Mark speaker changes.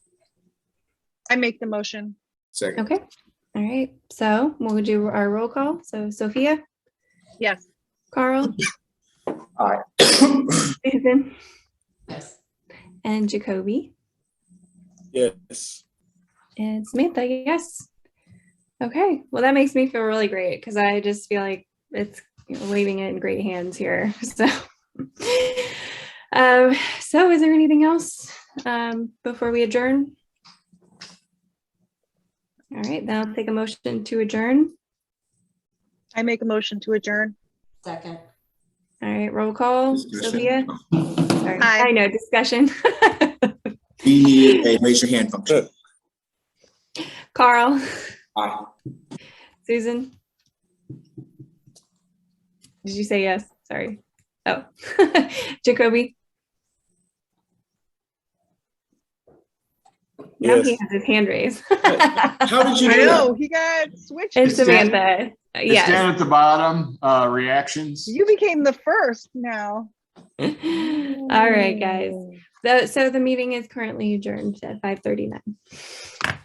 Speaker 1: I make the motion.
Speaker 2: Second,
Speaker 3: Okay, all right. So we'll do our roll call. So Sophia,
Speaker 1: Yes.
Speaker 3: Carl.
Speaker 2: Aye.
Speaker 3: Susan
Speaker 4: Yes.
Speaker 3: and Jacoby
Speaker 5: Yes.
Speaker 3: and Samantha, yes. Okay, well, that makes me feel really great because I just feel like it's you know, leaving it in great hands here. So, um, so is there anything else um, before we adjourn? All right, then I'll take a motion to adjourn.
Speaker 1: I make a motion to adjourn.
Speaker 4: Second.
Speaker 3: All right, roll call.
Speaker 2: Discussion.
Speaker 3: Sophia? Sorry,
Speaker 1: Aye.
Speaker 3: I know, discussion.
Speaker 2: we need a raise your hand function.
Speaker 3: Carl,
Speaker 2: Aye.
Speaker 3: Susan? Did you say yes? Sorry. Oh, Jacoby? Now he
Speaker 5: Yes.
Speaker 3: has his hand raised.
Speaker 2: How did you
Speaker 1: I
Speaker 2: do that?
Speaker 1: know, he got switched.
Speaker 3: And
Speaker 5: It's Dan-
Speaker 3: Samantha,
Speaker 5: It's
Speaker 3: yes.
Speaker 5: down at the bottom, uh, reactions.
Speaker 1: You became the first now.
Speaker 3: All right, guys. So, so the meeting is currently adjourned at 5:39.